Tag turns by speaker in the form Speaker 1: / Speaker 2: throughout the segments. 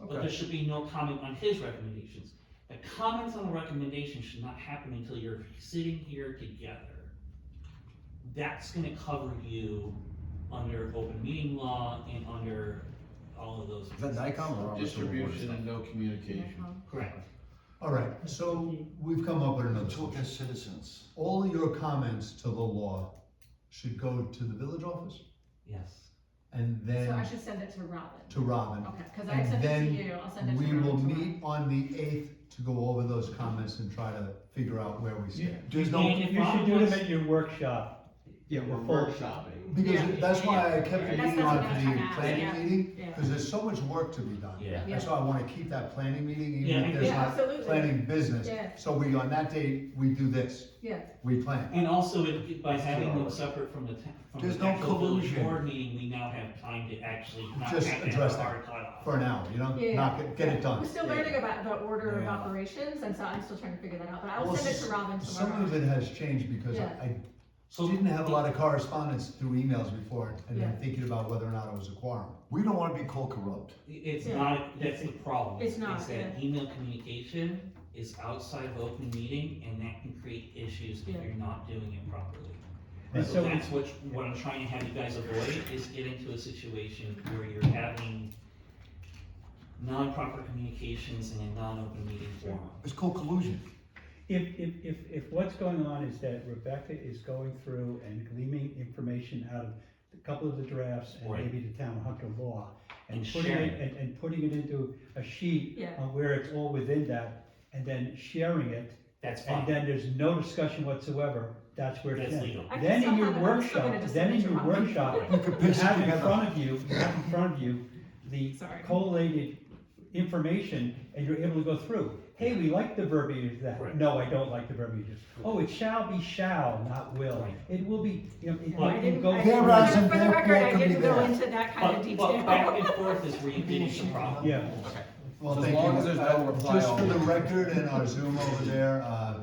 Speaker 1: but there should be no comment on his recommendations. The comments on the recommendation should not happen until you're sitting here together. That's gonna cover you under open meeting law and under all of those.
Speaker 2: Is that Nikon or Robertson
Speaker 3: Distribution and no communication.
Speaker 1: Correct.
Speaker 4: All right, so we've come up with another
Speaker 3: Talk
Speaker 4: solution.
Speaker 3: as citizens.
Speaker 4: All your comments to the law should go to the village office
Speaker 1: Yes.
Speaker 4: and
Speaker 5: So I
Speaker 4: then
Speaker 5: should send it to Robin,
Speaker 4: to Robin.
Speaker 5: okay, cause I
Speaker 4: And
Speaker 5: sent it
Speaker 4: then
Speaker 5: to you, I'll send it to
Speaker 4: We
Speaker 5: Robin.
Speaker 4: will
Speaker 5: tomorrow.
Speaker 4: meet on the eighth to go over those comments and try to figure out where we stand.
Speaker 3: There's
Speaker 1: And if
Speaker 6: You
Speaker 1: Bob
Speaker 6: should do
Speaker 1: wants-
Speaker 6: them at your workshop.
Speaker 3: Yeah, we're
Speaker 6: Full-
Speaker 3: workshopping.
Speaker 4: Because that's why I
Speaker 3: That's
Speaker 4: kept
Speaker 3: what
Speaker 4: meeting
Speaker 5: I'm
Speaker 4: on
Speaker 5: gonna
Speaker 4: the
Speaker 5: ask, yeah.
Speaker 4: planning meeting,
Speaker 5: Yeah.
Speaker 4: because there's so much work to be done.
Speaker 1: Yeah.
Speaker 4: That's why I wanna keep that planning meeting,
Speaker 1: Yeah,
Speaker 4: even if there's
Speaker 5: Yeah,
Speaker 4: not
Speaker 5: absolutely.
Speaker 4: planning business.
Speaker 5: Yeah.
Speaker 4: So we, on that date, we do this,
Speaker 5: Yeah,
Speaker 4: we plan.
Speaker 1: And also, it- by
Speaker 3: It's
Speaker 1: having them
Speaker 3: yours.
Speaker 1: separate from the, ta- from
Speaker 2: There's
Speaker 1: the
Speaker 2: no
Speaker 1: actual village
Speaker 2: collusion.
Speaker 1: board meeting, we now have time to actually not have
Speaker 4: Just
Speaker 1: to have
Speaker 4: address
Speaker 1: a
Speaker 4: that
Speaker 1: hard cutoff.
Speaker 4: for an hour, you know,
Speaker 5: Yeah.
Speaker 4: knock it, get it
Speaker 5: I'm
Speaker 4: done.
Speaker 5: still
Speaker 3: Yeah.
Speaker 5: learning about the order of
Speaker 2: Yeah.
Speaker 5: operations, and so I'm still trying to figure that out, but I
Speaker 4: Well,
Speaker 5: will send it
Speaker 4: s-
Speaker 5: to Robin
Speaker 4: Some of
Speaker 5: tomorrow.
Speaker 4: it has changed because I, I
Speaker 1: So-
Speaker 4: didn't have a lot of correspondence through emails before, and then
Speaker 5: Yeah.
Speaker 4: thinking about whether or not it was a quorum.
Speaker 2: We don't wanna be called corrupt.
Speaker 1: It's
Speaker 5: Yeah.
Speaker 1: not, that's the problem.
Speaker 5: It's not,
Speaker 1: Is that email communication is outside of open meeting and that can create issues if
Speaker 5: Yeah.
Speaker 1: you're not doing it properly.
Speaker 6: And
Speaker 1: So
Speaker 6: so,
Speaker 1: that's what, what I'm trying to have you guys avoid is get into a situation where you're having non-proper communications in a non-open meeting forum.
Speaker 2: It's called collusion.
Speaker 6: if, if, if, if what's going on is that Rebecca is going through and gleaming information out of a couple of the drafts and
Speaker 1: Right.
Speaker 6: maybe the town hunk of law, and
Speaker 1: And
Speaker 6: putting
Speaker 1: sharing
Speaker 6: it, and, and putting it into a sheet
Speaker 5: Yeah.
Speaker 6: on where it's all within that, and then sharing it,
Speaker 1: That's fine.
Speaker 6: and then there's no discussion whatsoever, that's where it's
Speaker 1: That's
Speaker 6: in.
Speaker 1: legal.
Speaker 5: I can
Speaker 6: Then
Speaker 5: still
Speaker 6: in your
Speaker 5: have it, I'm still
Speaker 6: workshop,
Speaker 5: gonna just
Speaker 6: then in
Speaker 5: send it
Speaker 6: your
Speaker 5: to Robin.
Speaker 6: workshop,
Speaker 2: You could
Speaker 6: You
Speaker 2: piece it
Speaker 6: have in
Speaker 2: together.
Speaker 6: front of you, you have in front of you, the
Speaker 5: Sorry.
Speaker 6: collated information, and you're able to go through. Hey, we like the verbiage of
Speaker 1: Right.
Speaker 6: that, no, I don't like the verbiage. of- Oh, it shall be shall, not will,
Speaker 1: Right.
Speaker 6: it will be, you know, it
Speaker 5: I
Speaker 6: might
Speaker 5: didn't,
Speaker 6: go.
Speaker 5: I,
Speaker 2: There are
Speaker 5: for
Speaker 2: some
Speaker 5: the- for the
Speaker 2: more
Speaker 5: record, I
Speaker 2: people
Speaker 5: didn't
Speaker 2: to
Speaker 5: go
Speaker 2: be
Speaker 5: into that kind of
Speaker 1: But, but back and
Speaker 5: detail.
Speaker 1: forth is where you get into problems.
Speaker 6: Yeah.
Speaker 4: Well,
Speaker 3: As
Speaker 4: thank
Speaker 3: long
Speaker 4: you.
Speaker 3: as there's no
Speaker 4: Uh,
Speaker 3: reply
Speaker 4: Just for
Speaker 3: all.
Speaker 4: the record and our Zoom over there, uh,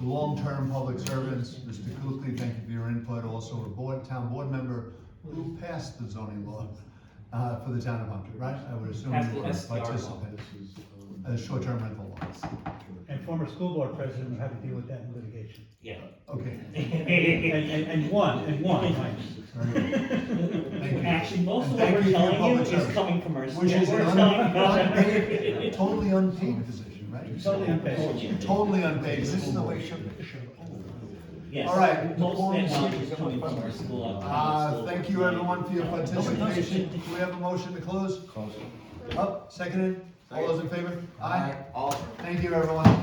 Speaker 4: long-term public servants, Mr. Kukli, thank you for your input, also a board, town board member who passed the zoning law, uh, for the town of Hunter, right? I would assume
Speaker 1: Passed
Speaker 4: you
Speaker 1: the
Speaker 4: were a
Speaker 1: SDR law.
Speaker 4: participant, uh, short-term rental laws.
Speaker 6: And former school board president will have to deal with that in litigation.
Speaker 1: Yeah.
Speaker 4: Okay,
Speaker 6: And, and, and one, and one, right?
Speaker 4: very good. Thank you.
Speaker 1: Actually, most of what
Speaker 4: And thank
Speaker 1: we're
Speaker 4: you for your
Speaker 1: telling you
Speaker 4: public
Speaker 1: is
Speaker 4: service.
Speaker 1: coming from our.
Speaker 4: Which is
Speaker 1: we're
Speaker 4: an
Speaker 1: telling you-
Speaker 4: unpaid, totally unpaid position, right?
Speaker 6: Totally unpaid.
Speaker 4: Totally unpaid.
Speaker 2: This is
Speaker 4: position.
Speaker 2: the way it should, it should.
Speaker 1: Yes.
Speaker 4: All right.
Speaker 1: Most of that knowledge is
Speaker 2: Before we-
Speaker 1: coming from our school. of-
Speaker 4: Uh, thank you everyone for your participation. Do we have a motion to close?
Speaker 3: Close.
Speaker 4: Up, seconded? All those in favor? Aye.
Speaker 2: All
Speaker 4: Thank you, everyone.